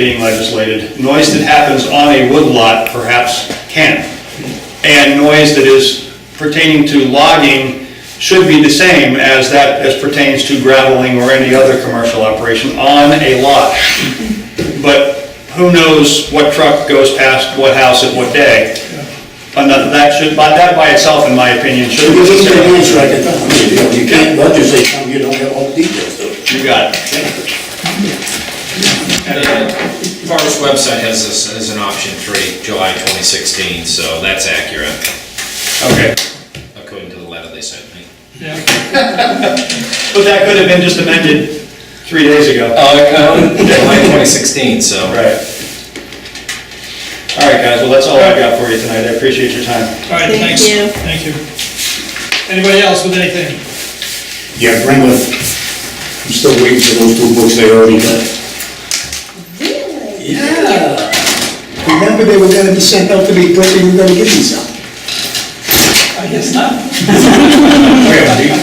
being legislated. Noise that happens on a woodlot perhaps can. And noise that is pertaining to logging should be the same as that as pertains to graveling or any other commercial operation on a lot. But who knows what truck goes past what house at what day? And that- that should, but that by itself, in my opinion, should be Because it's a considered. news right at the time, you know, you can't legislate something you don't have all the details of. You got it. And Forest website has this as an option three, July 2016, so that's accurate, Okay. according to the letter they sent me. But that could have been just amended three days ago. Uh, July 2016, so. Right. All right, guys, well, that's all I've got for you tonight, I appreciate your time. All right, Thank thanks. you. Thank you. Anybody else with anything? Yeah, Brenda, I'm still waiting for those two books they already got. Really? Yeah. Remember they were gonna be sent out to me, but you were gonna give me some. I guess not. To,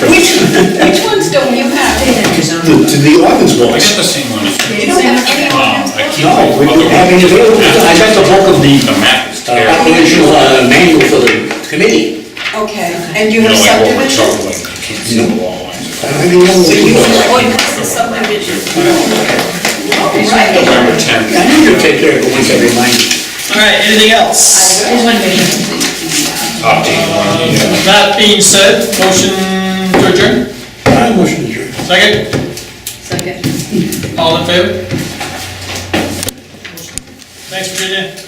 Which ones don't you have? to the Athens I got books. the same one. You don't have any Um, I on keep. No, we don't have any available. I got the bulk of the The map is uh, terrible. operational uh, manual for the committee. Okay, and you You know, have I won't my subdivision? trouble, like, I can't see the wall lines. I don't even know what So you it was. have ordinance and subdivision. November 10th. I need to take care of it once I remind you. All right, anything else? Top team, one, you know. That being said, motion to adjourn, I motion to adjourn. second, Second. all in favor? Thanks, Virginia.